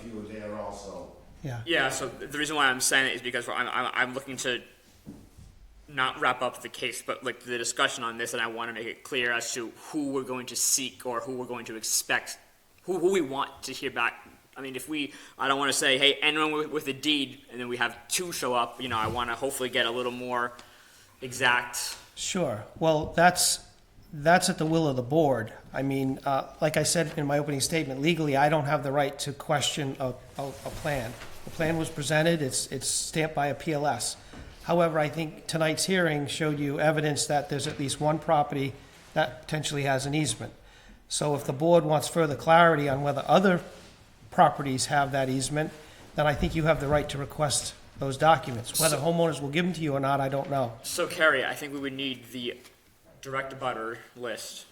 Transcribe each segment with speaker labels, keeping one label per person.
Speaker 1: few there also.
Speaker 2: yeah.
Speaker 3: Yeah, so the reason why I'm saying it is because I'm, I'm, I'm looking to not wrap up the case, but like the discussion on this, and I want to make it clear as to who we're going to seek or who we're going to expect, who, who we want to hear back. I mean, if we, I don't want to say, hey, anyone with, with a deed, and then we have two show up, you know, I want to hopefully get a little more exact.
Speaker 2: Sure. Well, that's, that's at the will of the board. I mean, uh, like I said in my opening statement, legally, I don't have the right to question a, a, a plan. The plan was presented, it's, it's stamped by a PLS. However, I think tonight's hearing showed you evidence that there's at least one property that potentially has an easement. So if the board wants further clarity on whether other properties have that easement, then I think you have the right to request those documents. Whether homeowners will give them to you or not, I don't know.
Speaker 3: So, Carrie, I think we would need the direct butter list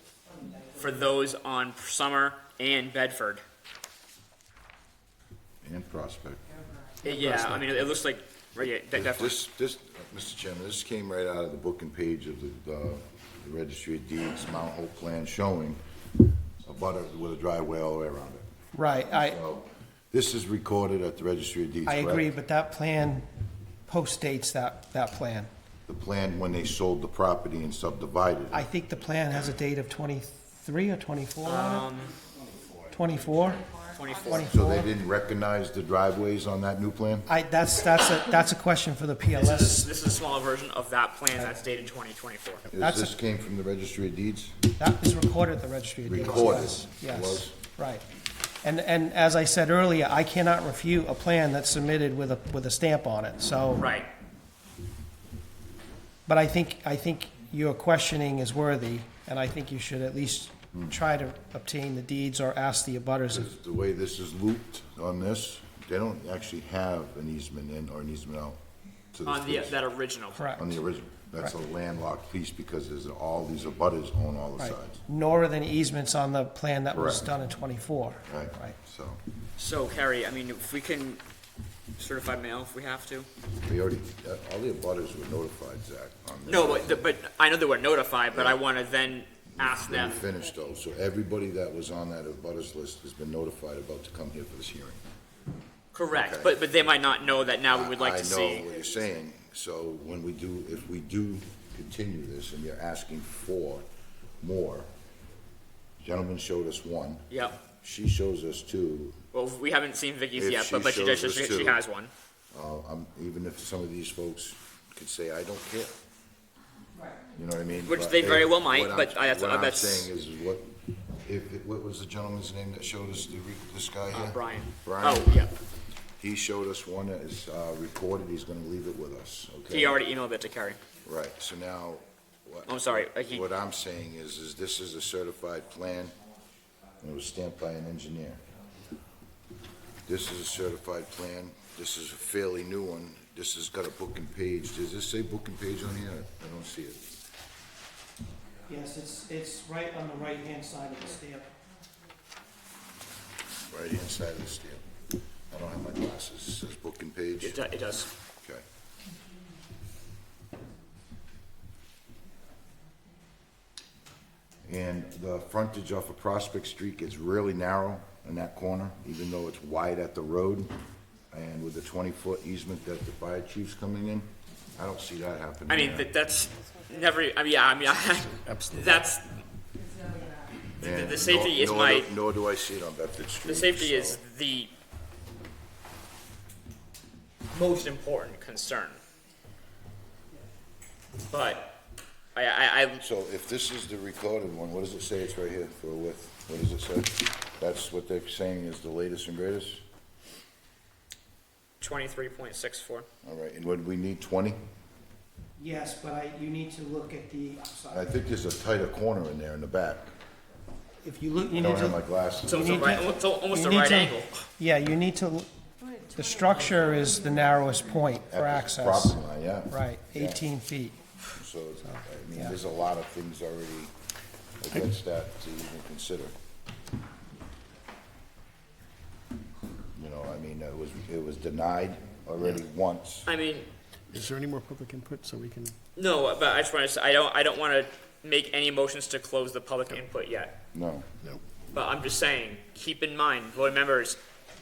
Speaker 3: for those on Summer and Bedford.
Speaker 4: And Prospect.
Speaker 3: Yeah, I mean, it looks like, right, yeah, de- definitely.
Speaker 4: This, this, Mr. Chairman, this came right out of the book and page of the, the the registry of deeds, Mount Hope plan showing a butter with a driveway all the way around it.
Speaker 2: Right, I,
Speaker 4: So this is recorded at the registry of deeds,
Speaker 2: I
Speaker 4: correct?
Speaker 2: agree, but that plan postdates that, that plan.
Speaker 4: The plan when they sold the property and subdivided it.
Speaker 2: I think the plan has a date of twenty-three or twenty-four on it? Twenty-four?
Speaker 4: So they
Speaker 2: Twenty-four?
Speaker 4: didn't recognize the driveways on that new plan?
Speaker 2: I, that's, that's a, that's a question for the
Speaker 3: This is,
Speaker 2: PLS.
Speaker 3: this is a smaller version of that plan that's dated 2024.
Speaker 4: Is
Speaker 2: That's a-
Speaker 4: this came from the registry of deeds?
Speaker 2: That is recorded at the registry of deeds.
Speaker 4: Recorded,
Speaker 2: yes,
Speaker 4: was.
Speaker 2: Yes, right. And, and as I said earlier, I cannot refute a plan that's submitted with a, with a stamp on it, so.
Speaker 3: Right.
Speaker 2: But I think, I think your questioning is worthy, and I think you should at least try to obtain the deeds or ask the abutters if
Speaker 4: 'Cause The way this is looped on this, they don't actually have an easement in or an easement out to this
Speaker 3: On the,
Speaker 4: piece.
Speaker 3: that original.
Speaker 2: Correct.
Speaker 4: On the original, that's a landlocked piece because there's all these abutters on all the
Speaker 2: Right.
Speaker 4: sides,
Speaker 2: Nor are there any easements on the plan that was
Speaker 4: Correct.
Speaker 2: done in twenty-four.
Speaker 4: right? So,
Speaker 3: So Carrie, I mean, if we can certify mail if we have to.
Speaker 4: we already, uh, all the abutters were notified, Zach, on this.
Speaker 3: No, but, the- but I know they were notified, but I want to then ask them.
Speaker 4: Then we finished though, so everybody that was on that abutters list has been notified about to come here for this hearing.
Speaker 3: Correct,
Speaker 4: Okay.
Speaker 3: but, but they might not know that now we would like
Speaker 4: I-
Speaker 3: to see.
Speaker 4: I know what you're saying, so when we do, if we do continue this and you're asking for more, gentleman showed us one,
Speaker 3: Yep.
Speaker 4: she shows us two,
Speaker 3: Well, we haven't seen Vicky's
Speaker 4: If
Speaker 3: yet,
Speaker 4: she
Speaker 3: but, but she,
Speaker 4: shows
Speaker 3: she,
Speaker 4: us
Speaker 3: she she
Speaker 4: two.
Speaker 3: has one.
Speaker 4: uh, I'm, even if some of these folks could say, I don't care. You know what I mean?
Speaker 3: Which
Speaker 4: But
Speaker 3: they very
Speaker 4: if-
Speaker 3: well might,
Speaker 4: what I'm-
Speaker 3: but I- that's-
Speaker 4: What I'm
Speaker 3: that's-
Speaker 4: saying is what, if, it- what was the gentleman's name that showed us the, re- this guy here?
Speaker 3: Uh, Brian.
Speaker 4: Brian.
Speaker 3: Oh, yeah.
Speaker 4: He showed us one that is, uh, recorded, he's gonna leave it with us, okay?
Speaker 3: He already emailed it to Carrie.
Speaker 4: Right, so now. what-
Speaker 3: I'm sorry, uh, he-
Speaker 4: What I'm saying is, is this is a certified plan, and it was stamped by an engineer. This is a certified plan, this is a fairly new one, this has got a book and page, does this say book and page on here? I don't see it.
Speaker 2: Yes, it's, it's right on the right-hand side of the stamp.
Speaker 4: Right inside of the stamp. I don't have my glasses, it says book and page,
Speaker 3: It, do- it does.
Speaker 4: okay. And the frontage off of Prospect Street gets really narrow in that corner, even though it's wide at the road. And with the twenty-foot easement that the fire chief's coming in, I don't see that happening.
Speaker 3: I mean,
Speaker 4: there.
Speaker 3: that, that's never, I mean, yeah, I mean, I, that's, the-
Speaker 4: And
Speaker 3: the safety
Speaker 4: nor-
Speaker 3: is
Speaker 4: nor
Speaker 3: my-
Speaker 4: do- Nor do I see it on Bedford Street.
Speaker 3: The safety
Speaker 4: so-
Speaker 3: is the most important concern. But I, I, I,
Speaker 4: So if this is the recorded one, what does it say it's right here for width? What does it say? That's what they're saying is the latest and greatest?
Speaker 3: twenty-three point six four.
Speaker 4: All right, and would we need twenty?
Speaker 2: Yes, but I, you need to look at the, I'm
Speaker 4: I
Speaker 2: sorry,
Speaker 4: think there's a tighter corner in there in the back.
Speaker 2: if you look, you
Speaker 4: I
Speaker 2: need
Speaker 4: don't have my
Speaker 2: to.
Speaker 4: glasses.
Speaker 3: So it's
Speaker 2: You
Speaker 3: a
Speaker 2: need
Speaker 3: right,
Speaker 2: to-
Speaker 3: it's almost
Speaker 2: you
Speaker 3: a
Speaker 2: need
Speaker 3: right
Speaker 2: to-
Speaker 3: angle.
Speaker 2: Yeah, you need to, the structure is the narrowest point for
Speaker 4: At this
Speaker 2: access.
Speaker 4: Property line, yeah.
Speaker 2: Right,
Speaker 4: Yeah.
Speaker 2: eighteen feet.
Speaker 4: So, it's- I mean, there's a lot of things already against that to even consider. You know, I mean, it was, it was denied already once.
Speaker 3: I mean,
Speaker 5: Is there any more public input so we can?
Speaker 3: no, but I just wanna, say I don't, I don't wanna make any motions to close the public input yet.
Speaker 4: No,
Speaker 5: No.
Speaker 3: But I'm just saying, keep in mind, board members,